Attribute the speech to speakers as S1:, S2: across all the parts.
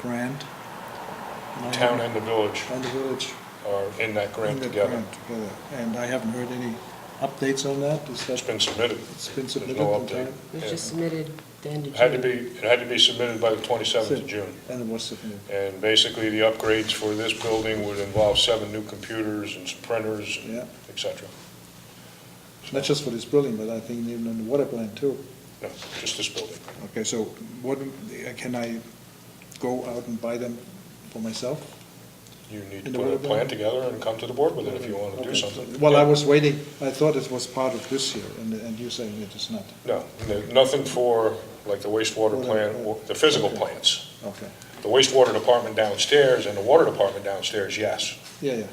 S1: grant. and I
S2: Town
S1: haven't-
S2: and the village
S1: And the village.
S2: are in that grant
S1: and the
S2: together.
S1: grant together. And I haven't heard any updates on that. Is that?
S2: It's been submitted.
S1: It's been
S2: There's
S1: submitted
S2: no
S1: in
S2: update.
S1: time?
S2: Yeah.
S3: It was just submitted the end of
S2: It
S3: June.
S2: Had to be, it had to be submitted by the 27th of June.
S1: And it was submitted.
S2: And basically, the upgrades for this building would involve seven new computers and some printers, and
S1: Yeah.
S2: et cetera.
S1: Not just for this building, but I think even on the water plant too.
S2: No, just this building.
S1: Okay, so what, uh, can I go out and buy them for myself?
S2: You need to
S1: And the
S2: put a
S1: water
S2: plan
S1: bill?
S2: together and come to the board with it if you want to do
S1: Okay, so-
S2: something.
S1: Well, I
S2: Yeah.
S1: was waiting, I thought it was part of this year, and, and you're saying it is not.
S2: No, no- nothing for, like, the wastewater
S1: Water
S2: plant,
S1: plant.
S2: or the physical
S1: Okay.
S2: plants.
S1: Okay,
S2: The wastewater department downstairs and the water department downstairs, yes,
S1: yeah, yeah. Uh,
S2: yeah.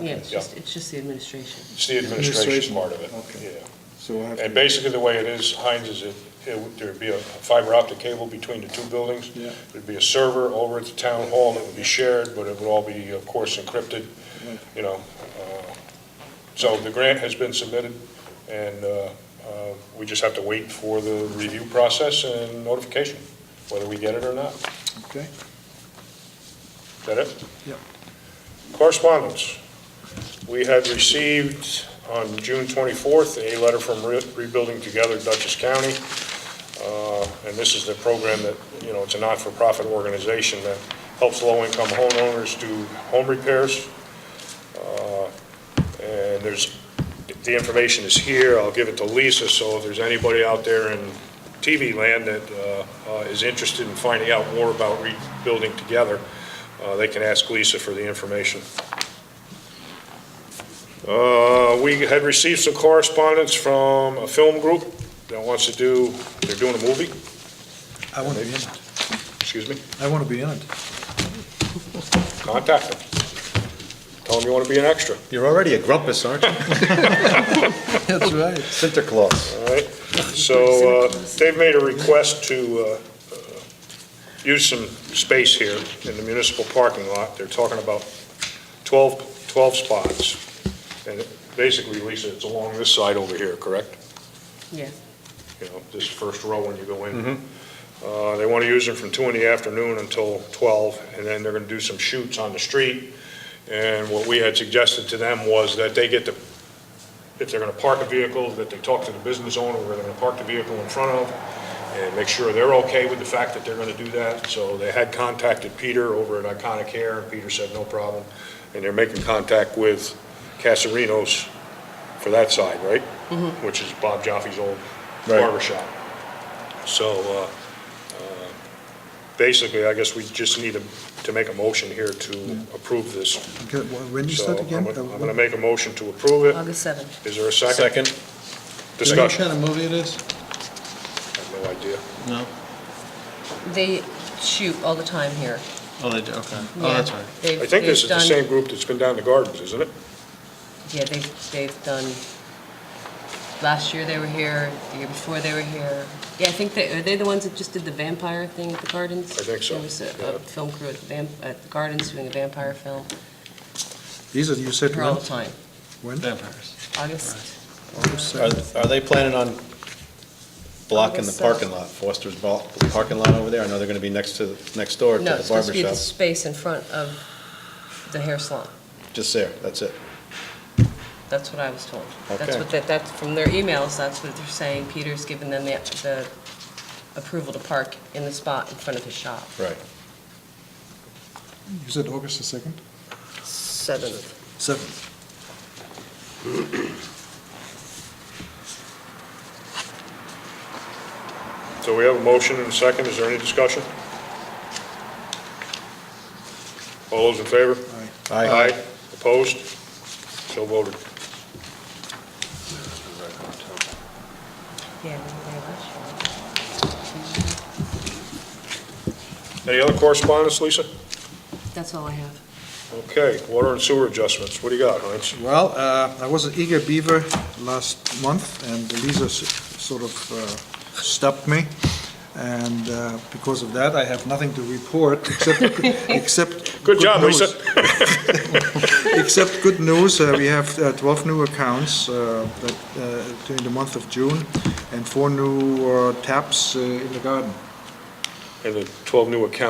S3: Yeah,
S1: Okay.
S3: it's just, it's just the administration.
S2: It's the administration
S1: Administration,
S2: part of it,
S1: okay.
S2: yeah.
S1: So I have.
S2: And
S1: to-
S2: basically, the way it is, Heinz, is it, it would- there'd be a fiber optic cable between the two buildings.
S1: Yeah.
S2: There'd be a server over at the town hall that would be shared, but it would all be, of course, encrypted,
S1: Right.
S2: you know. uh, So the grant has been submitted, and uh, uh, we just have to wait for the review process and notification, whether we get it or not.
S1: Okay,
S2: Is that it?
S1: Yep.
S2: Correspondence. We had received on June 24th, a letter from Re- Rebuilding Together Dutchess County. Uh, And this is the program that, you know, it's a not-for-profit organization that helps low-income homeowners do home repairs. Uh, And there's, the information is here. I'll give it to Lisa, so if there's anybody out there in TV land that uh, uh, is interested in finding out more about Rebuilding Together, uh, They can ask Lisa for the information. Uh, We had received some correspondence from a film group that wants to do, they're doing a movie,
S1: I want to be in it,
S2: excuse me,
S1: I want to be in it.
S2: contact them. Tell them you want to be an extra,
S4: You're already a grumpus, aren't you?
S1: That's right.
S4: Sinterklaas.
S2: all right? So uh, they've made a request to uh, uh, use some space here in the municipal parking lot. They're talking about 12, 12 spots. And it- basically, Lisa, it's along this side over here, correct?
S3: Yeah.
S2: you know, this first row when you go in. Uh, They want to use them from two in the afternoon until twelve, and then they're going to do some shoots on the street. And what we had suggested to them was that they get the, if they're going to park a vehicle, that they talk to the business owner where they're going to park the vehicle in front of, and make sure they're okay with the fact that they're going to do that. So they had contacted Peter over at Iconic Hair, and Peter said no problem. And they're making contact with Casarinos for that side, right?
S1: Mm-hmm.
S2: Which is Bob Joffe's old
S4: Right.
S2: barber shop. So, uh, uh, basically, I guess we just need to, to make a motion here to approve this.
S1: Okay, wh- when is
S2: So
S1: that Um, again?
S2: I'm gonna-
S1: Uh,
S2: I'm gonna make a motion to approve it.
S3: August 7th.
S2: Is there a second?
S4: Second?
S2: Discussion?
S1: kind of movie it is?
S2: I have no idea.
S5: No?
S3: They shoot all the time here.
S5: Oh, they do, okay. Oh, that's right.
S2: I think this is the same group that's been down the gardens, isn't it?
S3: Yeah, they've, they've done, last year they were here, the year before they were here. Yeah, I think they, are they the ones that just did the vampire thing at the gardens?
S2: I think so,
S3: There was a
S2: yeah.
S3: a film crew at the vamp, at the gardens doing a vampire film.
S1: These are, you said
S3: Here all
S1: when?
S3: the time.
S1: When?
S5: Vampires.
S3: August,
S1: August
S4: Are,
S2: Uh,
S1: seventh?
S4: are they planning on blocking the
S3: August seventh.
S4: parking lot, Foster's blo- parking lot over there? I know they're gonna be next to, next door to
S3: no,
S4: the
S3: it's supposed
S4: barber
S3: to be the
S4: shop.
S3: space in front of the hair salon.
S4: Just there, that's it.
S3: That's what I was told. That's
S4: Okay.
S3: what, that, that's from their emails, that's what they're saying. Peter's given them the, the approval to park in the spot in front of his shop.
S4: Right.
S1: You said August the second?
S3: Seventh.
S1: Seventh.
S2: So we have a motion and a second. Is there any discussion? All those in favor?
S1: Aye.
S4: Aye.
S2: Opposed? So voted.
S3: Yeah, we were there last year.
S2: Any other correspondence, Lisa?
S3: That's all I have.
S2: Okay, water and sewer adjustments. What do you got, Heinz?
S1: Well, uh, I was an eager beaver last month, and Lisa s- sort of uh, stopped me, and uh, because of that, I have nothing to report, except, except...
S2: Good job,
S1: news.
S2: Lisa.
S1: Except good news, uh, we have uh, 12 new accounts uh, that, uh, during the month of June, and four new uh, taps uh, in the garden.
S2: And the 12 new accounts